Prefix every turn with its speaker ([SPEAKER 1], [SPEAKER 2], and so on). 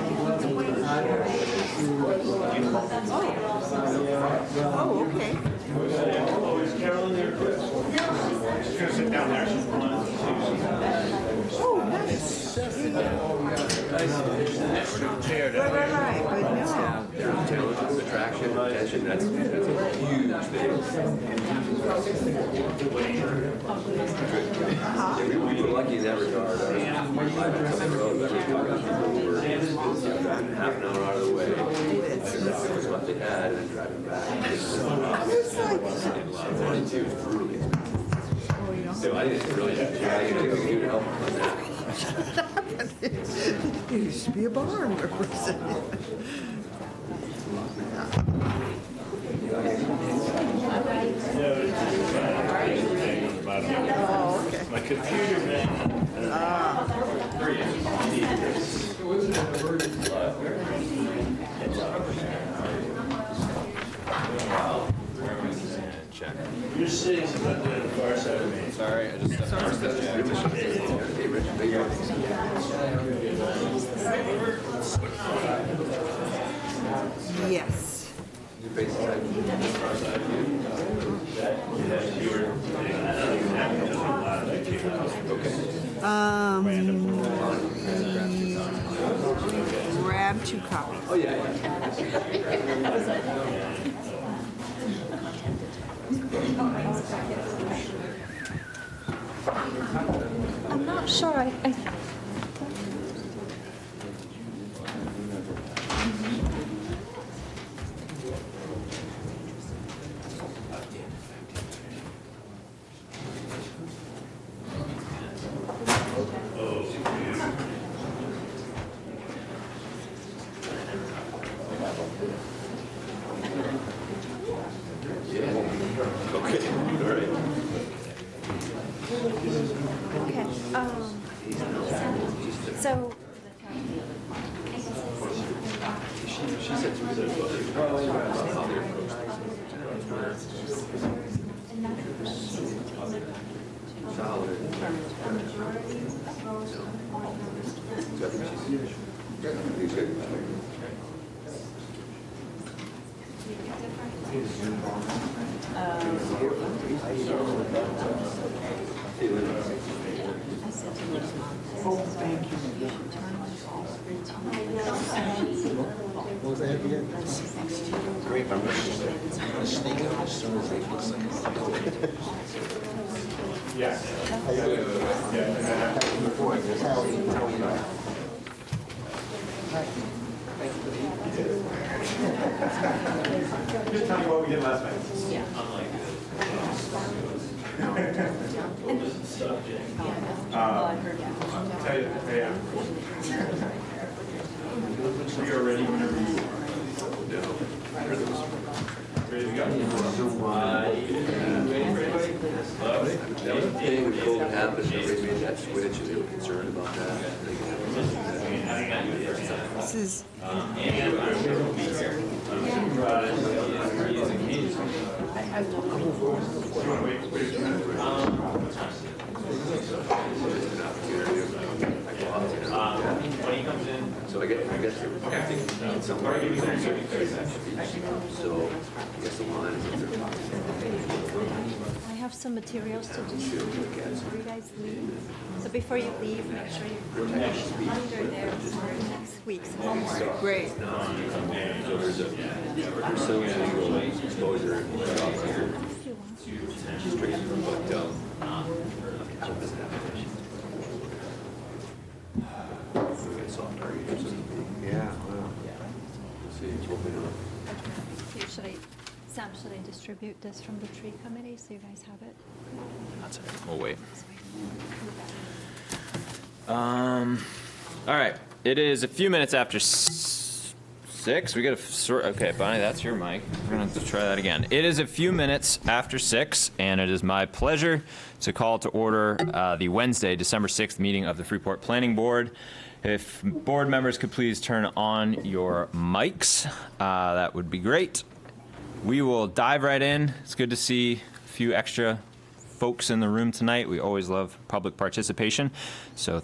[SPEAKER 1] Oh,
[SPEAKER 2] there to
[SPEAKER 1] Right, right, right, but no.
[SPEAKER 2] have their intelligence, attraction, and attention. That's, that's a huge thing. Yeah, we, we were lucky in that regard. Uh, we were half an hour out of the way. That was what they had and driving back. It's
[SPEAKER 1] I was like,
[SPEAKER 2] a lot of money too. It's brutally expensive.
[SPEAKER 1] oh, you know,
[SPEAKER 2] So I didn't really, yeah, I didn't think we could do to help on that.
[SPEAKER 1] it used to be a barn where we sat. Oh, okay.
[SPEAKER 3] My computer, man.
[SPEAKER 2] Check.
[SPEAKER 3] You're sitting about the far side of me.
[SPEAKER 2] Sorry, I just. Hey, Rich, how you doing?
[SPEAKER 1] Yes.
[SPEAKER 2] Your face is like-
[SPEAKER 1] Um, Grab two copies.
[SPEAKER 2] Oh, yeah. yeah.
[SPEAKER 4] I'm not sure. I, I
[SPEAKER 2] Okay, all right.
[SPEAKER 4] okay. Um, so
[SPEAKER 5] Just tell me what we did last night. Yeah. Uh, Tell you, yeah. We are ready whenever you are. Ready to go?
[SPEAKER 2] That was the thing when COVID happened, everybody made that switch and they were concerned about that. They could have-
[SPEAKER 1] This is,
[SPEAKER 2] So I guess, I guess, I think somewhere. So I guess the line is if they're
[SPEAKER 4] I have some materials to distribute before you guys leave. So before you leave, make sure you under there for next week's homework.
[SPEAKER 1] great.
[SPEAKER 2] There's some annual exposure in the job here. Straight from what, um, what does that happen? We got soft targets. Yeah, well. Let's see, hopefully not.
[SPEAKER 4] Should I, Sam, should I distribute this from the tree committee so you guys have it?
[SPEAKER 6] That's all right. We'll wait. Um, all right. It is a few minutes after s- six. We got to sort. Okay, Bonnie, that's your mic. We're gonna have to try that again. It is a few minutes after six, and it is my pleasure to call to order uh, the Wednesday, December sixth meeting of the Freeport Planning Board. If board members could please turn on your mics, uh, that would be great. We will dive right in. It's good to see a few extra folks in the room tonight. We always love public participation, so